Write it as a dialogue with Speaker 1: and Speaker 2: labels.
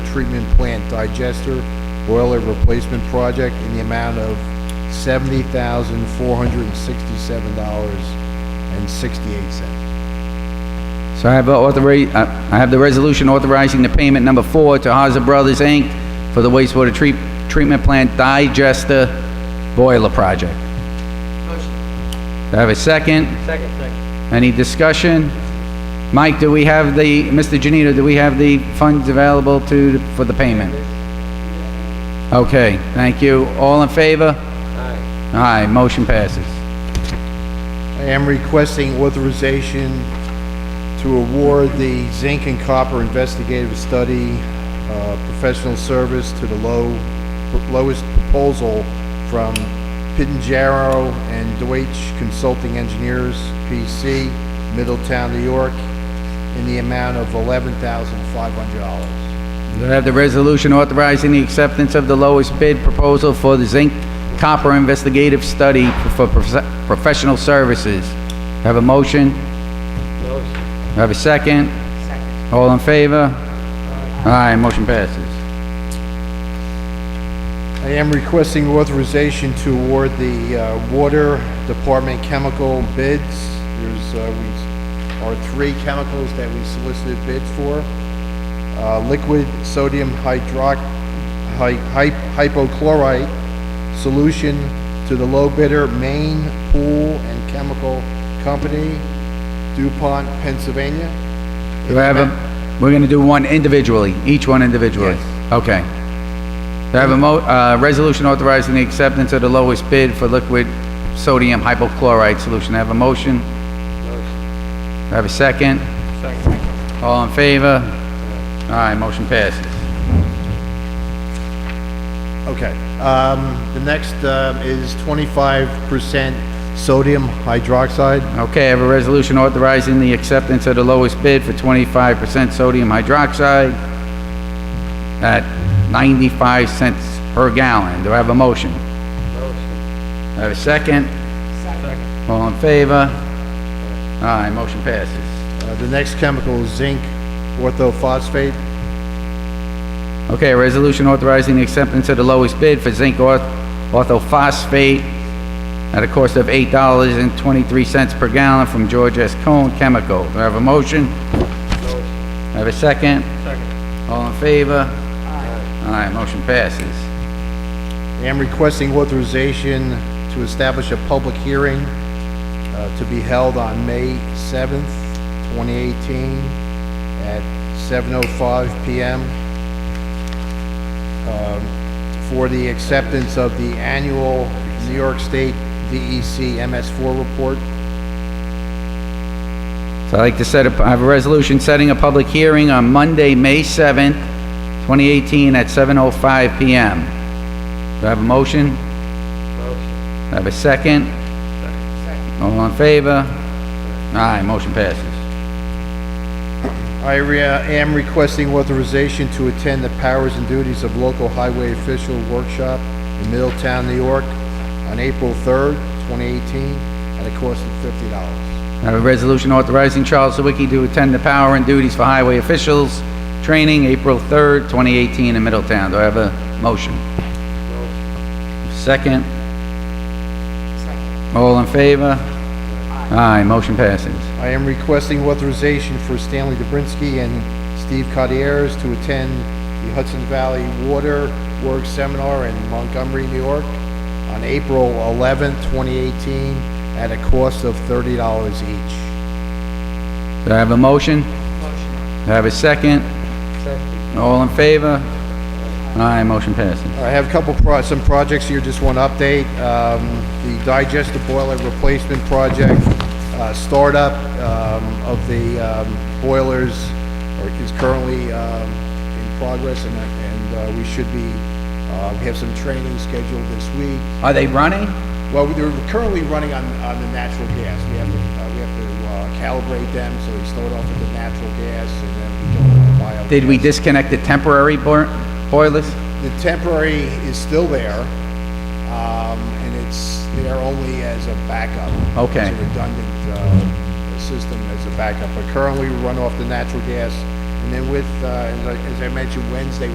Speaker 1: treatment plant digester boiler replacement project in the amount of seventy thousand, four hundred and sixty-seven dollars and sixty-eight cents.
Speaker 2: So I have uh, authori- I I have the resolution authorizing the payment number four to Haza Brothers, Inc. for the wastewater treat- treatment plant digester boiler project. Do I have a second? Second. Any discussion? Mike, do we have the, Mr. Janito, do we have the funds available to, for the payment? Okay, thank you. All in favor? Aye. Aye, motion passes.
Speaker 1: I am requesting authorization to award the zinc and copper investigative study, uh, professional service to the low, lowest proposal from Pittenger and Deutsch Consulting Engineers, PC, Middletown, New York, in the amount of eleven thousand five hundred dollars.
Speaker 2: Do I have the resolution authorizing the acceptance of the lowest bid proposal for the zinc copper investigative study for prof- professional services? Have a motion? Have a second? Second. All in favor? Aye, motion passes.
Speaker 1: I am requesting authorization to award the uh, Water Department chemical bids. There's, uh, we, are three chemicals that we solicited bids for. Uh, Liquid sodium hydroc, hy- hy- hypochlorite solution to the low bidder, Maine Pool and Chemical Company, DuPont, Pennsylvania.
Speaker 2: Do I have a, we're gonna do one individually, each one individually?
Speaker 1: Yes.
Speaker 2: Okay. Do I have a mo, uh, resolution authorizing the acceptance of the lowest bid for liquid sodium hypochlorite solution? Have a motion? Do I Have a second? Second. All in favor? Aye, motion passes.
Speaker 1: Okay, um, the next, um, is twenty-five percent sodium hydroxide.
Speaker 2: Okay, I have a resolution authorizing the acceptance of the lowest bid for twenty-five percent sodium hydroxide at ninety-five cents per gallon. Do I have a motion? Motion. I have a second? Second. All in favor? Aye, motion passes.
Speaker 1: Uh, The next chemical is zinc orthophosphate.
Speaker 2: Okay, a resolution authorizing the acceptance of the lowest bid for zinc orth- orthophosphate at a cost of eight dollars and twenty-three cents per gallon from George S. Cone Chemical. Do I have a motion? Motion. I have a second? Second. All in favor? Aye. Aye, motion passes.
Speaker 1: I am requesting authorization to establish a public hearing uh, to be held on May 7th, 2018, at 7:05 PM um, for the acceptance of the annual New York State E DEC MS4 report.
Speaker 2: So I'd like to set up, I have a resolution setting a public hearing on Monday, May seventh, twenty eighteen, at seven oh five PM. Do I have a motion? Motion. I have a second? Second. All in favor? Aye, motion passes.
Speaker 1: I re- uh, am requesting authorization to attend the powers and duties of local highway official workshop in Middletown, New York, on April 3rd, 2018, at a cost of $50.
Speaker 2: I have a resolution authorizing Charles Sawicki to attend the power and duties for highway officials training April 3rd, 2018 in Middletown. Do I have a motion? Second? All in favor? Aye, motion passes.
Speaker 1: I am requesting authorization for Stanley Dobrinsky and Steve Cotieres to attend the Hudson Valley Water Works Seminar in Montgomery, New York, on April 11th, 2018, at a cost of $30 each.
Speaker 2: Do I have a motion? Motion. Do I have a second? Second. All in favor? Aye, motion passes.
Speaker 1: I have a couple, pro- some projects here, just one update. Um, The digester boiler replacement project, uh, startup um, of the um, boilers or is currently um, in progress, and- and uh, we should be, uh, we have some training scheduled this week.
Speaker 2: Are they running?
Speaker 1: Well, they're currently running on, on the natural gas. We have, to uh, we have to uh, calibrate them, so we start off with the natural gas, and then we go to the bio.
Speaker 2: Did we disconnect the temporary boi- boilers?
Speaker 1: The temporary is still there, um, and it's there only as a backup.
Speaker 2: Okay.
Speaker 1: It's a redundant, uh, system as a backup, but currently we run off the natural gas. And then with, uh, as I, as I mentioned, Wednesday,